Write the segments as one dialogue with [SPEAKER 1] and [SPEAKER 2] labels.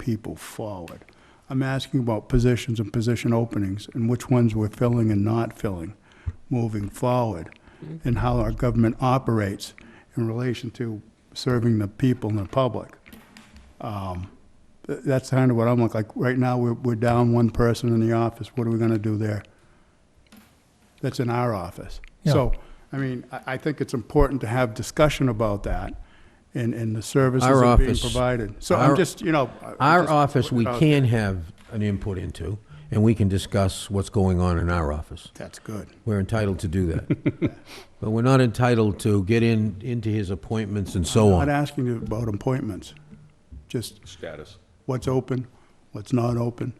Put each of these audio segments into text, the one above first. [SPEAKER 1] people forward. I'm asking about positions and position openings, and which ones we're filling and not filling moving forward,
[SPEAKER 2] Mm-hmm.
[SPEAKER 1] and how our government operates in relation to serving the people and the public. Um, th- That's kind of what I'm like, like, right now, we're, we're down one person in the office, what are we gonna do there? That's in our office. So, I mean, I, I think it's important to have discussion about that, and, and the services
[SPEAKER 2] Our
[SPEAKER 1] that are being
[SPEAKER 2] office-
[SPEAKER 1] provided. So
[SPEAKER 2] our-
[SPEAKER 1] I'm just, you know. I- I'm
[SPEAKER 2] Our
[SPEAKER 1] just
[SPEAKER 2] office,
[SPEAKER 1] putting
[SPEAKER 2] we
[SPEAKER 1] it out
[SPEAKER 2] can have an input into, and we can discuss what's going on in our office.
[SPEAKER 1] there. That's good.
[SPEAKER 2] We're entitled to do that. But we're not entitled to get in, into his appointments and so
[SPEAKER 1] Not
[SPEAKER 2] on.
[SPEAKER 1] asking you about appointments, just
[SPEAKER 3] status.
[SPEAKER 1] what's open, what's not open,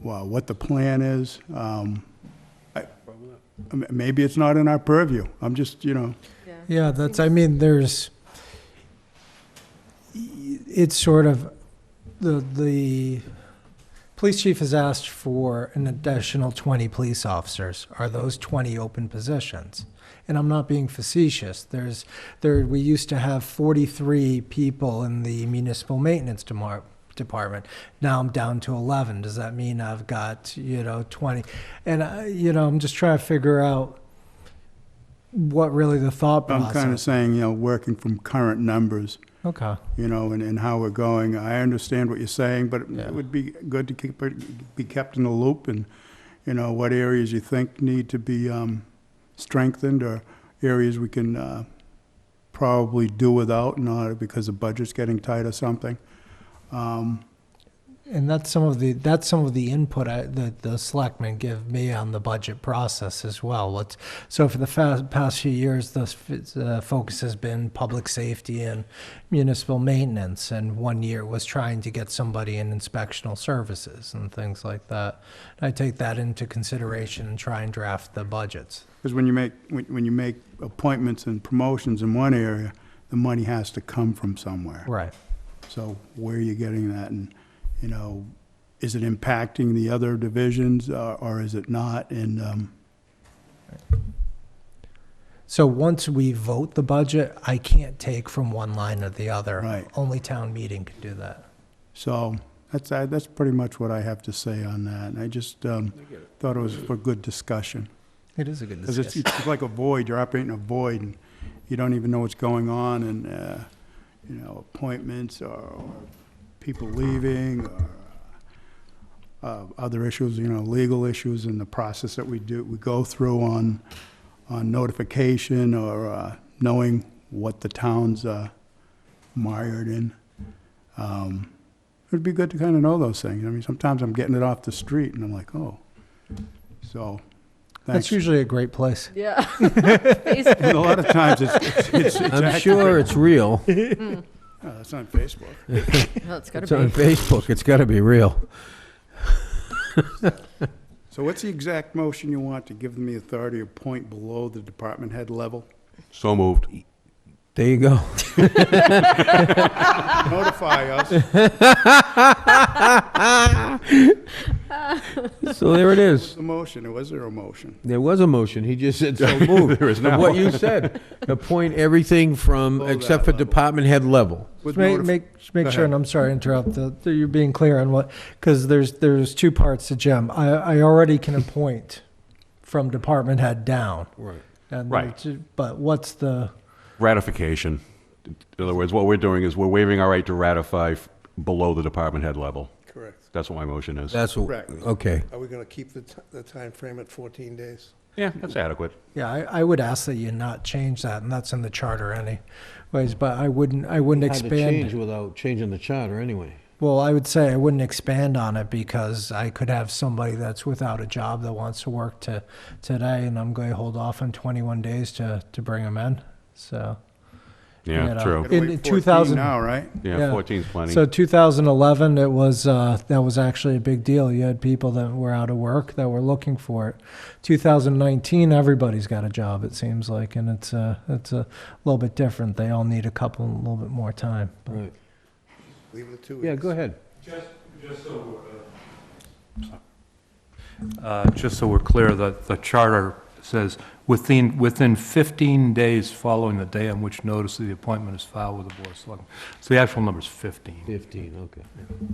[SPEAKER 1] wha- what the plan is. um, I- m- Maybe it's not in our purview. I'm just, you know,
[SPEAKER 4] Yeah, that's, I mean, there's, it's sort of, the, the police chief has asked for an additional 20 police officers. Are those 20 open positions? And I'm not being facetious. There's, there, we used to have 43 people in the municipal maintenance demar- department. Now I'm down to 11. Does that mean I've got, you know, 20? And, I- you know, I'm just trying to figure out what really the thought
[SPEAKER 1] I'm
[SPEAKER 4] process.
[SPEAKER 1] kind of saying, you know, working from current numbers,
[SPEAKER 4] Okay.
[SPEAKER 1] you know, and, and how we're going. I understand what you're saying, but
[SPEAKER 4] Yeah.
[SPEAKER 1] it would be good to keep, it- be kept in the loop and, you know, what areas you think need to be um, strengthened or areas we can uh, probably do without, not because the budget's getting tight or something. Um,
[SPEAKER 4] And that's some of the, that's some of the input I, that the selectmen give me on the budget process as well. What's, so for the fa- past few years, the f- uh, focus has been public safety and municipal maintenance. And one year was trying to get somebody in inspectional services and things like that. I take that into consideration and try and draft the budgets.
[SPEAKER 1] Because when you make, when, when you make appointments and promotions in one area, the money has to come from somewhere.
[SPEAKER 4] Right.
[SPEAKER 1] So where are you getting that? And, you know, is it impacting the other divisions uh, or is it not? And, um,
[SPEAKER 4] So once we vote the budget, I can't take from one line to the other.
[SPEAKER 1] Right.
[SPEAKER 4] Only town meeting can do that.
[SPEAKER 1] so that's, I- that's pretty much what I have to say on that. And I just, um, thought it was for good discussion.
[SPEAKER 4] It is a good
[SPEAKER 1] Because it's,
[SPEAKER 4] discussion.
[SPEAKER 1] it's like a void, you're operating a void and you don't even know what's going on and, uh, you know, appointments or or people leaving or uh, other issues, you know, legal issues and the process that we do, we go through on, on notification or uh, knowing what the town's uh, mired in. Um, It'd be good to kind of know those things. I mean, sometimes I'm getting it off the street and I'm like, oh. So,
[SPEAKER 4] That's
[SPEAKER 1] thanks.
[SPEAKER 4] usually a great place.
[SPEAKER 5] Yeah. Facebook.
[SPEAKER 1] And a lot of times it's, it's, it's, it's
[SPEAKER 2] I'm
[SPEAKER 1] accurate.
[SPEAKER 2] sure it's real.
[SPEAKER 1] Oh, that's on Facebook.
[SPEAKER 5] No, it's got
[SPEAKER 2] It's
[SPEAKER 5] to
[SPEAKER 2] on
[SPEAKER 5] be.
[SPEAKER 2] Facebook. It's gotta be real.
[SPEAKER 1] So what's the exact motion you want to give them the authority to point below the department head level?
[SPEAKER 3] So moved.
[SPEAKER 2] There you go.
[SPEAKER 1] Notify us.
[SPEAKER 2] So there it
[SPEAKER 1] What's
[SPEAKER 2] is.
[SPEAKER 1] the motion, or was there a motion?
[SPEAKER 2] There was a motion. He just said so moved.
[SPEAKER 3] There is
[SPEAKER 2] And
[SPEAKER 3] now.
[SPEAKER 2] What you said. Appoint everything from,
[SPEAKER 1] Below that
[SPEAKER 2] except for
[SPEAKER 1] level.
[SPEAKER 2] department head level.
[SPEAKER 1] With
[SPEAKER 4] Make,
[SPEAKER 1] notif-
[SPEAKER 4] make, just make
[SPEAKER 1] Go
[SPEAKER 4] sure, and
[SPEAKER 1] ahead.
[SPEAKER 4] I'm sorry to interrupt, the, the- you're being clear on what, because there's, there's two parts to Jim. I, I already can appoint from department head down.
[SPEAKER 2] Right.
[SPEAKER 4] and
[SPEAKER 3] Right.
[SPEAKER 4] to- But what's the,
[SPEAKER 3] Ratification. In other words, what we're doing is we're waiving our right to ratify f- below the department head level.
[SPEAKER 6] Correct.
[SPEAKER 3] That's what my motion is.
[SPEAKER 2] That's what,
[SPEAKER 1] Correct.
[SPEAKER 2] okay.
[SPEAKER 6] Are we going to keep the, ti- the time frame at 14 days?
[SPEAKER 3] Yeah, that's adequate.
[SPEAKER 4] yeah, I, I would ask that you not change that, and that's in the charter anyways, but I wouldn't, I wouldn't
[SPEAKER 2] Hard to change
[SPEAKER 4] expand.
[SPEAKER 2] without changing the charter anyway.
[SPEAKER 4] Well, I would say I wouldn't expand on it because I could have somebody that's without a job that wants to work to, today, and I'm going to hold off on 21 days to, to bring them in, so. You
[SPEAKER 3] Yeah,
[SPEAKER 4] know.
[SPEAKER 3] true.
[SPEAKER 1] Gotta
[SPEAKER 4] in
[SPEAKER 1] wait 14
[SPEAKER 4] 2000
[SPEAKER 1] Now, right?
[SPEAKER 4] yeah.
[SPEAKER 3] Yeah, 14 is plenty.
[SPEAKER 4] So 2011, it was uh, that was actually a big deal. You had people that were out of work that were looking for it. 2019, everybody's got a job. It seems like, and it's uh, it's a little bit different. They all need a couple, a little bit more time. But
[SPEAKER 2] Right.
[SPEAKER 6] Leave it at two weeks?
[SPEAKER 2] Yeah, go ahead.
[SPEAKER 7] Just, just so, uh, uh, just so we're clear, the, the charter says, within, within 15 days following the day on which notice of the appointment is filed with the Board of Selectmen. So the actual number is 15.
[SPEAKER 2] 15, okay.